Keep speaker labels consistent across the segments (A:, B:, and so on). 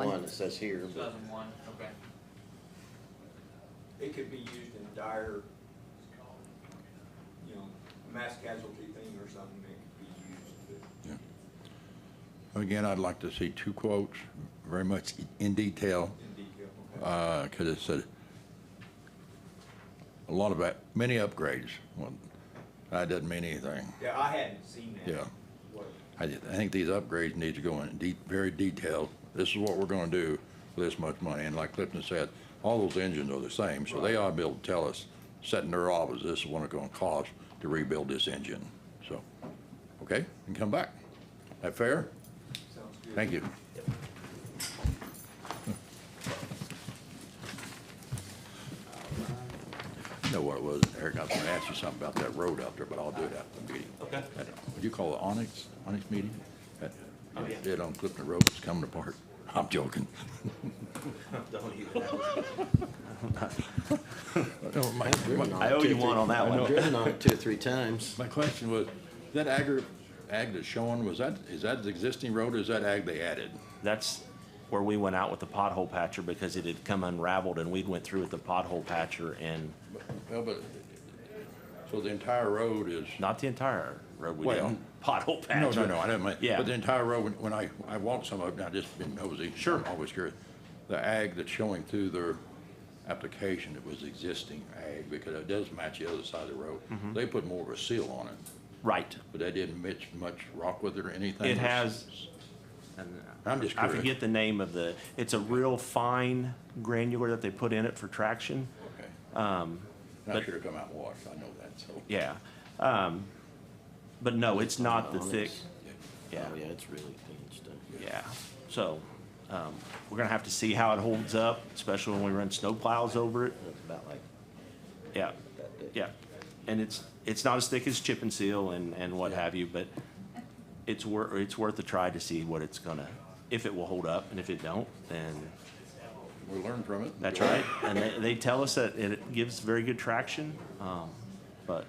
A: it says here,
B: Two
A: but
B: thousand one, okay.
C: It could be used in dire, you know, mass casualty thing or something, it could be used.
D: Again, I'd like to see two quotes, very much in detail,
C: in detail.
D: Uh,
C: okay?
D: because it's a, a lot of, up- many upgrades. Well, That doesn't mean anything.
C: Yeah, I hadn't seen that.
D: Yeah.
C: What,
D: I ju- I think these upgrades need to go in de- very detailed. This is what we're gonna do for this much money. And like Clifton said, all those engines are the same, so they ought to be able to tell us, setting their office, this is what it's gonna cost to rebuild this engine. So, okay, and come back. That fair?
C: sounds good.
D: Thank you. Know what it was, Eric, I was gonna ask you something about that road out there, but I'll do it after the meeting.
E: Okay.
D: At- Would you call it Onyx, Onyx meeting? At-
E: Oh, yeah.
D: Did on Clifton Road, it's coming apart. I'm joking.
E: Don't even.
D: No, my- my-
E: I owe you one on that
A: I've
E: one.
A: driven on it two or three times.
D: My question was, that agri, ag that's showing, was that, is that the existing road or is that ag they added?
E: That's where we went out with the pothole patcher because it had come unraveled and we went through with the pothole patcher and
D: Well, but, so the entire road is.
E: not the entire road. We
D: Well-
E: didn't pothole patch.
D: No, no, no, I don't mind.
E: Yeah.
D: But the entire road, when- when I, I walked some of it, and I just been nosy. Sure. Always curious. The ag that's showing through their application, it was existing ag, because it does match the other side of the road.
E: Mm-hmm.
D: They put more of a seal on it,
E: Right.
D: but they didn't mix much rock with it or anything.
E: It has.
D: I'm just
E: I
D: curious.
E: forget the name of the, it's a real fine granular that they put in it for traction.
D: Okay. Um. Not
E: but-
D: sure to come out and watch, I know that, so.
E: Yeah. Um, but no, it's not the
A: Onyx.
E: thick, yeah,
A: Oh, yeah, it's really thin stuff.
E: yeah. So, um, we're gonna have to see how it holds up, especially when we run snow plows over it.
A: It's about like
E: Yeah,
A: that thick.
E: yeah. And it's, it's not as thick as chip and seal and, and what have you, but it's wor, it's worth a try to see what it's gonna, if it will hold up, and if it don't, then
D: We learned from it.
E: That's right, and they, they tell us that it gives very good traction, um, but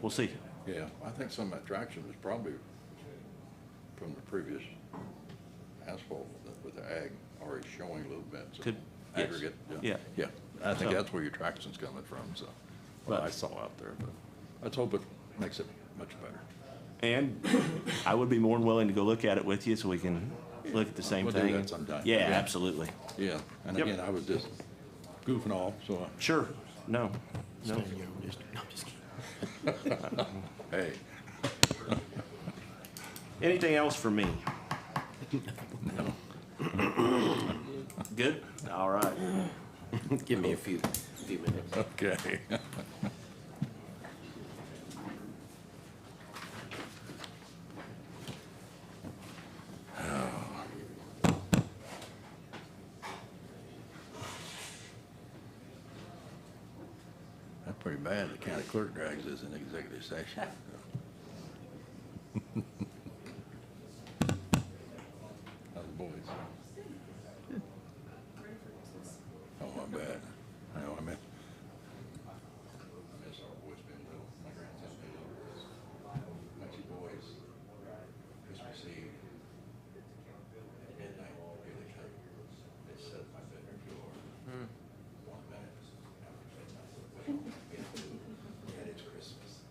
E: we'll see.
D: Yeah, I think some of that traction was probably from the previous asphalt with the- with the ag already showing a little bit. so
E: Could- yes.
D: Aggregate.
E: Yeah.
D: Yeah, I think
E: So-
D: that's where your traction's coming from, so, what
E: But-
D: I saw out there, but let's hope it makes it much better.
E: And I would be more than willing to go look at it with you so we can look at the same
D: We'll do
E: thing.
D: that sometime.
E: Yeah,
D: Yeah.
E: absolutely.
D: Yeah, and
E: Yep.
D: again, I was just goofing off, so,
E: Sure, no, no.
A: Stand your own district. No, I'm just kidding.
D: hey,
E: Anything else for me? Good? All right.
A: Give me a few, few minutes.
D: okay. Oh. That's pretty bad, the county clerk drags us in executive session. How's the boys? Oh, my bad. I know, I meant. I miss our boys being little. My grandson being little. My two boys, Christmas Eve, at midnight, here they come. They set my bedroom door. Hmm. One minute after midnight, wake up, get food, and it's Christmas.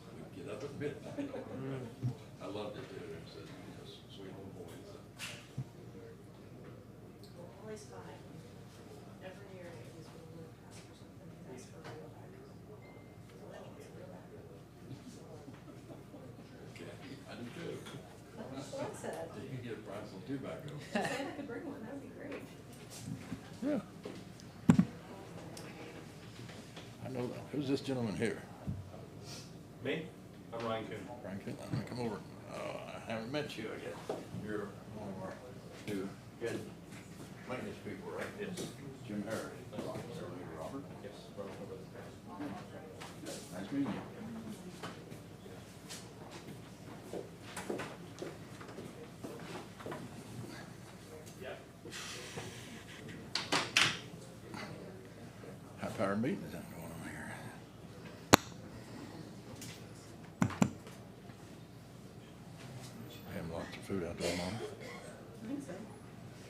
D: So we get up at midnight. Hmm. I loved it, dude. It's a it's a sweet little boys.
F: Always five. Every year it was when we were past or something, that's for real back. So that was real back.
D: Okay, I do too.
F: That's what I said.
D: You can get a prize on tobacco.
F: If I could bring one, that would be great.
D: Yeah. I know, that. who's this gentleman here?
C: Me? I'm Ryan Coon.
D: Frank, Hill? come over. Oh, I haven't met you yet. You're one of our new good maintenance people, right? Yes. Jim Harris. Robert, Sir Lee Robert.
C: Yes. Robert Robert.
D: Nice meeting you. High power meeting is going on here. Having lots of food out there, Mom.